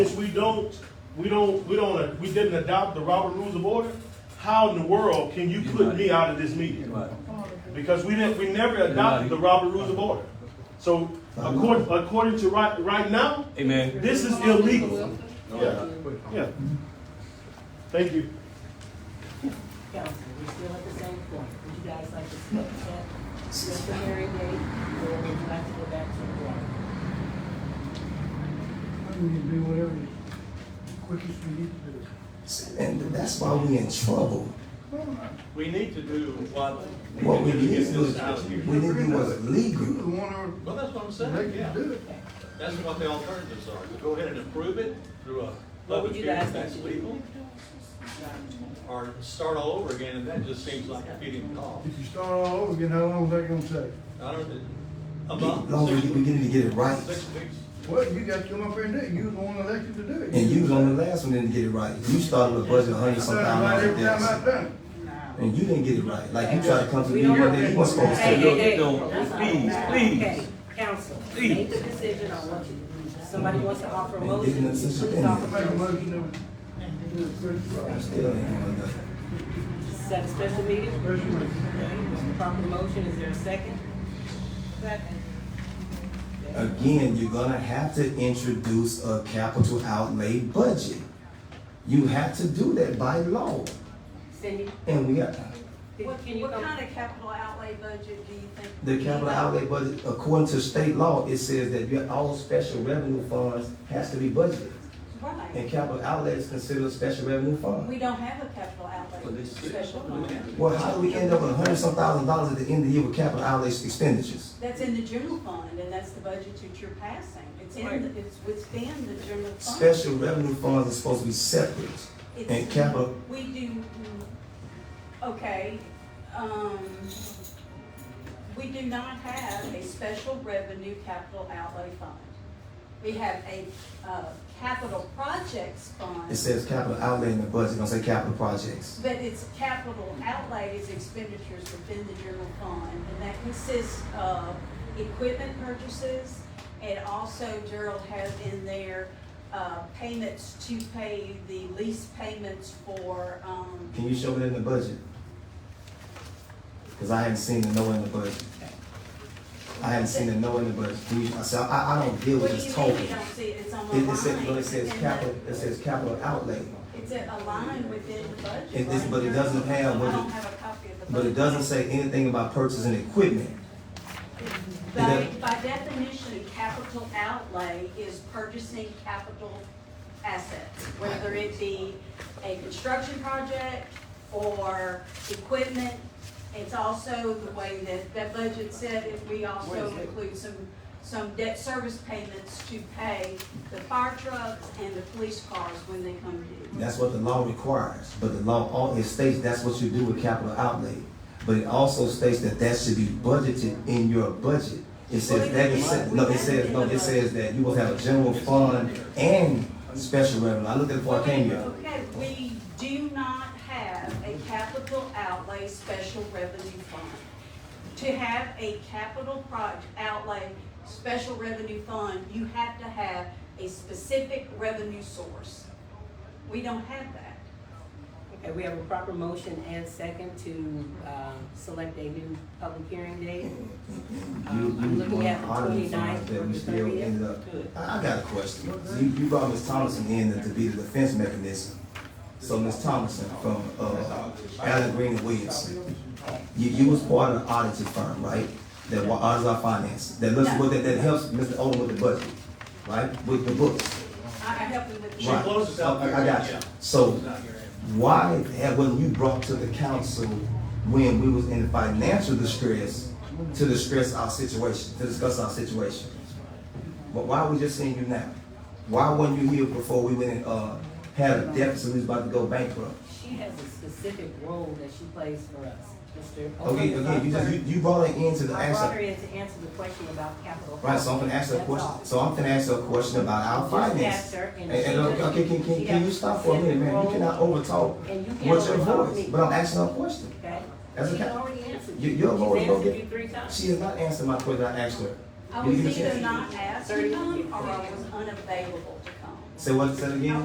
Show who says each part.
Speaker 1: If we don't, we don't, we don't, we didn't adopt the Robert Rules of Order, how in the world can you put me out of this meeting?
Speaker 2: Right.
Speaker 1: Because we didn't, we never adopted the Robert Rules of Order. So according, according to right, right now,
Speaker 2: Amen.
Speaker 1: this is illegal. Yeah, yeah. Thank you.
Speaker 3: Council, we're still at the same point. Would you guys like to split that, just the hearing date, or would you like to go back to the board?
Speaker 4: I mean, you do whatever the quickest we need to do.
Speaker 5: And that's why we in trouble.
Speaker 6: We need to do what.
Speaker 5: What we
Speaker 6: need to get
Speaker 5: did was,
Speaker 6: this out here.
Speaker 5: we didn't do was
Speaker 4: You the
Speaker 5: legal.
Speaker 4: one
Speaker 6: Well, that's what I'm
Speaker 4: who
Speaker 6: saying,
Speaker 4: elected
Speaker 6: yeah.
Speaker 4: to do it.
Speaker 6: That's what the alternatives are. We go ahead and approve it through a
Speaker 3: What would
Speaker 6: public
Speaker 3: you
Speaker 6: hearing,
Speaker 3: guys
Speaker 6: if
Speaker 3: like
Speaker 6: that's
Speaker 3: to do?
Speaker 6: legal, or start all over again, and that just seems like a feeding call.
Speaker 4: If you start all over again, how long is that gonna take?
Speaker 6: I don't, a
Speaker 5: As
Speaker 6: month,
Speaker 5: long as
Speaker 6: six
Speaker 5: we
Speaker 6: weeks,
Speaker 5: need to get it right.
Speaker 6: six weeks.
Speaker 4: Well, you got to come up here and do it. You was the one elected to do it.
Speaker 5: And you was on the last one didn't get it right. You started with a budget a hundred
Speaker 4: I
Speaker 5: some
Speaker 4: done it right
Speaker 5: thousand
Speaker 4: every time I
Speaker 5: dollars.
Speaker 4: done it.
Speaker 5: And you didn't get it right. Like you tried to come to me one day, you was supposed
Speaker 3: Hey,
Speaker 5: to.
Speaker 3: hey, hey.
Speaker 2: No, please, please.
Speaker 3: Okay, council, make the decision on what you, somebody wants to offer a
Speaker 5: Man,
Speaker 3: motion,
Speaker 5: isn't this just
Speaker 3: please offer
Speaker 4: Make a
Speaker 3: a motion.
Speaker 4: motion
Speaker 5: I'm still ain't doing nothing.
Speaker 3: Set a special meeting.
Speaker 4: to, first one.
Speaker 3: Proper motion, is there a second? Second.
Speaker 5: Uh, Again, you're gonna have to introduce a capital outlay budget. You have to do that by law.
Speaker 3: Cindy,
Speaker 5: And we got,
Speaker 3: did-
Speaker 7: What,
Speaker 3: can you
Speaker 7: what
Speaker 3: come?
Speaker 7: kind of capital outlay budget do you think?
Speaker 5: The capital outlay budget, according to state law, it says that your, all special revenue funds has to be budgeted.
Speaker 7: Right,
Speaker 5: And capital outlay is considered a special revenue
Speaker 7: we
Speaker 5: fund.
Speaker 7: don't have a capital outlay special fund.
Speaker 5: Well, how do we end up with a hundred some thousand dollars at the end of the year with capital outlay expenditures?
Speaker 7: That's in the general fund, and that's the budget that you're passing. It's in, the- it's within the general fund.
Speaker 5: Special revenue funds are supposed to be separate.
Speaker 7: It's-
Speaker 5: And capital,
Speaker 7: We do, mm, okay, um, we do not have a special revenue capital outlay fund. We have a, uh, capital projects fund.
Speaker 5: it says capital outlay in the budget, don't say capital projects.
Speaker 7: But it's capital outlay is expenditures within the general fund, and that consists of equipment purchases, and also Gerald has in there, uh, payments to pay the lease payments for, um,
Speaker 5: Can you show it in the budget? Cause I haven't seen the no in the budget. I haven't seen the no in the budget. Can you, so I, I don't deal with
Speaker 7: what do
Speaker 5: this
Speaker 7: you mean
Speaker 5: total.
Speaker 7: you don't see it, it's on the line.
Speaker 5: It, it says, no, it says
Speaker 7: in the-
Speaker 5: capital, it says capital outlay,
Speaker 7: It's a a line within the budget.
Speaker 5: It is,
Speaker 7: right?
Speaker 5: but it doesn't have what
Speaker 7: I don't
Speaker 5: it-
Speaker 7: have a copy of the budget.
Speaker 5: but it doesn't say anything about purchasing equipment.
Speaker 7: By,
Speaker 5: doesn't-
Speaker 7: by definition, capital outlay is purchasing capital assets, whether it be a construction project or equipment. It's also the way that, that budget said, if we also include some, some debt service payments to pay the fire trucks and the police cars when they come due.
Speaker 5: That's what the law requires, but the law, all, it states that's what you do with capital outlay. But it also states that that should be budgeted in your budget. It says that, it says, no, it says, no, it says that you will have a general fund and special revenue. I looked at it before I came here.
Speaker 7: Okay, we do not have a capital outlay special revenue fund. To have a capital project outlay special revenue fund, you have to have a specific revenue source. We don't have that.
Speaker 3: Okay, we have a proper motion and second to, uh, select a new public hearing date. Um,
Speaker 5: You,
Speaker 3: I'm
Speaker 5: you
Speaker 3: looking
Speaker 5: doing
Speaker 3: at the
Speaker 5: auditing funds
Speaker 3: 29th
Speaker 5: that we
Speaker 3: or
Speaker 5: still
Speaker 3: 30th.
Speaker 5: end up.
Speaker 3: Good.
Speaker 5: I, I got a question. You, you brought Ms. Thompson in to be the defense mechanism. So Ms. Thompson from, uh, Allen Green and Williamson, you, you was part of the auditing firm, right? That wa- audits our finance, that looks,
Speaker 7: No.
Speaker 5: that, that helps Mr. Odom with the budget, right? With the books.
Speaker 7: I, I help you with the.
Speaker 6: She
Speaker 5: Right.
Speaker 6: closes out
Speaker 5: I- I
Speaker 6: there,
Speaker 5: got you.
Speaker 6: yeah.
Speaker 5: So
Speaker 6: Not here.
Speaker 5: why have, when you brought to the council, when we was in financial distress, to distress our situation, to discuss our situation? But why we just seeing you now? Why weren't you here before we went and, uh, had a deficit, we was about to go bankrupt?
Speaker 3: She has a specific role that she plays for us, Mr.
Speaker 5: Okay, again, you just, you, you brought her into the
Speaker 3: I brought her
Speaker 5: answer.
Speaker 3: in to answer the question about capital.
Speaker 5: Right, so I'm gonna ask her a
Speaker 3: That's
Speaker 5: question,
Speaker 3: all.
Speaker 5: so I'm gonna ask her a question about our
Speaker 3: Just
Speaker 5: finance.
Speaker 3: asked her,
Speaker 5: And,
Speaker 3: and she
Speaker 5: and, uh,
Speaker 3: just-
Speaker 5: okay, can, can,
Speaker 3: she
Speaker 5: can
Speaker 3: got
Speaker 5: you stop for a minute, man? You
Speaker 3: specific
Speaker 5: cannot
Speaker 3: role,
Speaker 5: overtalk
Speaker 3: And you can't
Speaker 5: what's your
Speaker 3: overtalk
Speaker 5: voice,
Speaker 3: me,
Speaker 5: but I'm asking her a question.
Speaker 3: okay?
Speaker 5: That's
Speaker 3: She's
Speaker 5: okay.
Speaker 3: already answered
Speaker 5: You-
Speaker 3: you.
Speaker 5: you're already
Speaker 3: She's
Speaker 5: gonna
Speaker 3: answered
Speaker 5: get-
Speaker 3: you three times.
Speaker 5: She has not answered my question I asked her.
Speaker 7: I
Speaker 5: You-
Speaker 7: was
Speaker 5: you-
Speaker 7: either not asked to come or I was unavailable to come.
Speaker 5: Say what, say it again?